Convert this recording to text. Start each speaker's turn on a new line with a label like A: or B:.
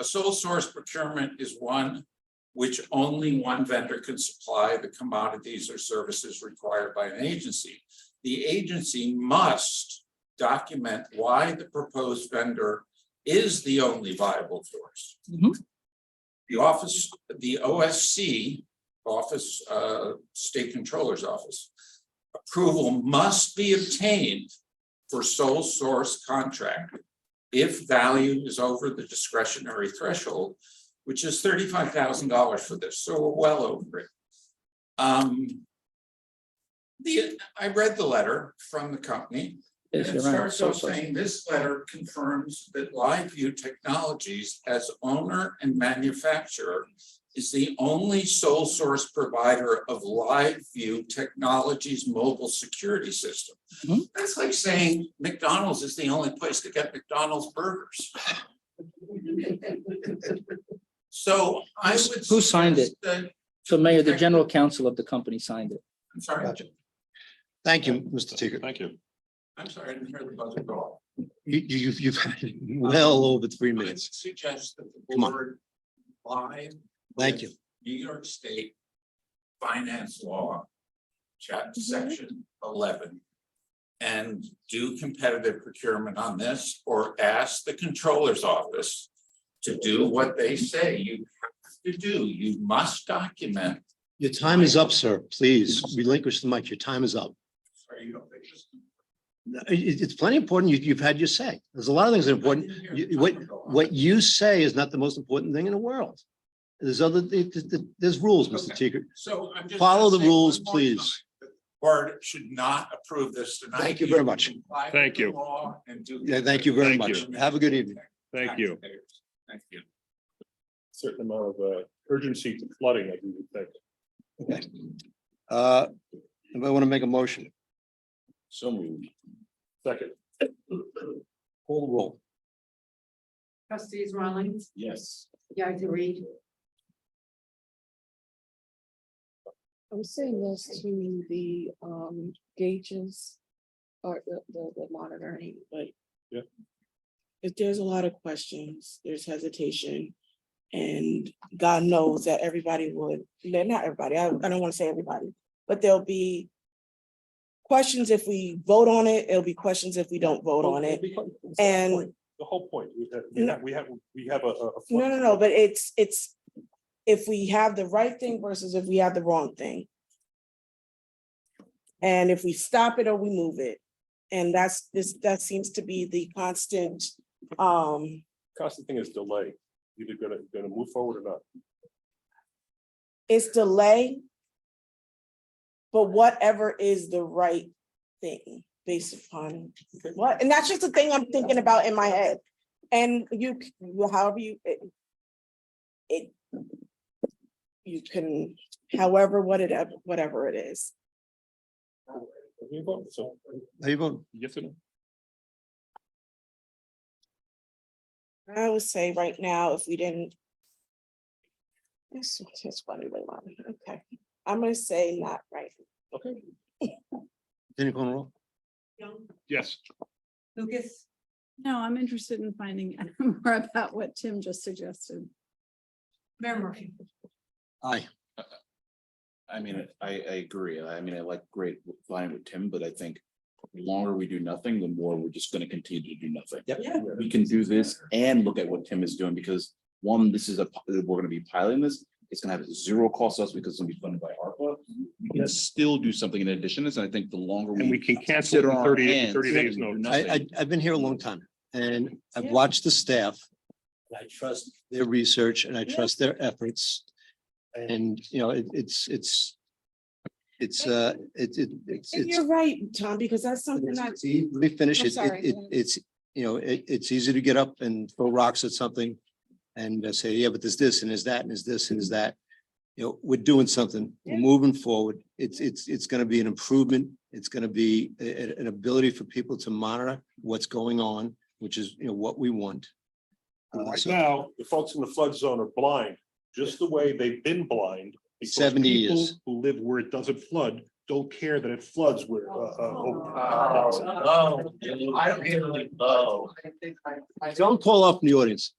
A: A sole source procurement is one which only one vendor can supply the commodities or services required by an agency. The agency must document why the proposed vendor is the only viable source.
B: Mhm.
A: The office, the OSC, Office, uh, State Controller's Office, approval must be obtained for sole source contract if value is over the discretionary threshold, which is thirty-five thousand dollars for this, so we're well over it. Um, the, I read the letter from the company. And
B: Yes,
A: it
B: you're right.
A: starts
B: So,
A: off
B: so,
A: saying this letter confirms that LiveView Technologies as owner and manufacturer is the only sole source provider of LiveView Technologies mobile security system.
B: Mhm.
A: That's like saying McDonald's is the only place to get McDonald's burgers. So I would.
B: Who signed it?
A: suggest that-
B: so Mayor, the general counsel of the company signed it.
A: I'm sorry,
C: Gotcha. Thank you, Mr. Teeger.
D: Thank you.
A: I'm sorry, I didn't hear the buzzer at all.
C: You, you, you've- you've had well over three
A: I would
C: minutes.
A: suggest that the
C: Come on.
A: board live
C: Thank you.
A: New York State Finance Law, chapter section eleven. And do competitive procurement on this or ask the controller's office to do what they say you have to do. You must document.
C: Your time is up, sir. Please relinquish the mic. Your time is up.
A: Sorry, you don't think this-
C: No, it- it's plenty important. You, you've had your say. There's a lot of things that are important.
A: I didn't hear
C: You-
A: the
C: what,
A: timer go off.
C: what you say is not the most important thing in the world. There's other, th- th- th- there's rules, Mr. Teeger.
A: So I'm just.
C: Follow the
A: gonna say one
C: rules,
A: more
C: please.
A: time. The Board should not approve this tonight.
C: Thank you very much.
A: comply with
D: Thank
A: the
D: you.
A: law and do-
C: Yeah, thank you very
D: Thank
C: much.
D: you.
C: Have a good evening.
D: Thank you.
A: Taxpayers. Thank you.
D: Certain amount of uh, urgency to flooding, I do think.
C: Okay. Uh, anybody want to make a motion?
D: So moved. Second.
C: Call the roll.
E: Trustees Rawlings,
D: Yes.
E: Yagdari,
F: I'm saying this to the um gauges or the the the monitoring, like.
D: Yeah.
F: If there's a lot of questions, there's hesitation. And God knows that everybody would, no, not everybody, I I don't want to say everybody, but there'll be. Questions if we vote on it, it'll be questions if we don't vote on it. And-
D: The whole point, we have- we have, we have, we have a. a- a-
F: No, no, no, but it's it's. If we have the right thing versus if we have the wrong thing. And if we stop it or we move it. And that's this, that seems to be the constant, um,
D: Constant thing is delay. Either gonna, gonna move forward or not.
F: it's delay. But whatever is the right thing based upon what, and that's just the thing I'm thinking about in my head. And you, c- well, however you, it. it- You can, however, what it, whatever it is,
D: Have you voted? So,
C: How you voting?
D: yes or no?
F: I would say right now, if we didn't. This is funny, wait, wait, okay, I'm gonna say not right.
D: Okay,
C: Continue calling the roll.
E: Young,
D: yes.
E: Lucas,
G: No, I'm interested in finding out more about what Tim just suggested.
E: Mayor Murphy.
C: Aye.
H: I mean, I, I agree. I mean, I like great line with Tim, but I think the longer we do nothing, the more we're just gonna continue to do nothing.
E: Yeah.
H: We can do this and look at what Tim is doing because one, this is a, pi- we're gonna be piloting this. It's gonna have zero cost to us because it's gonna be funded by ARPA. We can still do something in addition. And I think the longer we.
D: And we can cancel
H: sit on
D: in
H: our
D: 30
H: hands
D: 30 days
H: and do
D: notice.
C: I, I,
H: nothing,
C: I've been here a long time and I've
F: Yeah.
C: watched the staff. and I trust their research and I trust their efforts. And, you know, it, it's, it's, it's, uh, it, it, it's,
F: And
C: it's.
F: you're right, Tom, because that's something that
C: it's e- Let me finish
F: I'm
C: it.
F: sorry,
C: It, it,
F: go ahead.
C: it's, you know, it, it's easy to get up and throw rocks at something. And uh, say, yeah, but there's this and there's that and there's this and there's that. You know, we're doing something, we're
F: Yeah.
C: moving forward. It's, it's, it's gonna be an improvement. It's gonna be a- a- an ability for people to monitor what's going on, which is, you know, what we want. Uh,
D: Right
C: so
D: now, the folks in the flood zone are blind, just the way they've been blind. because
C: 70
D: people
C: years.
D: Who live where it doesn't flood, don't care that it floods where. uh, uh,
A: Oh, oh, I don't hear the, oh.
C: Don't call off from the audience.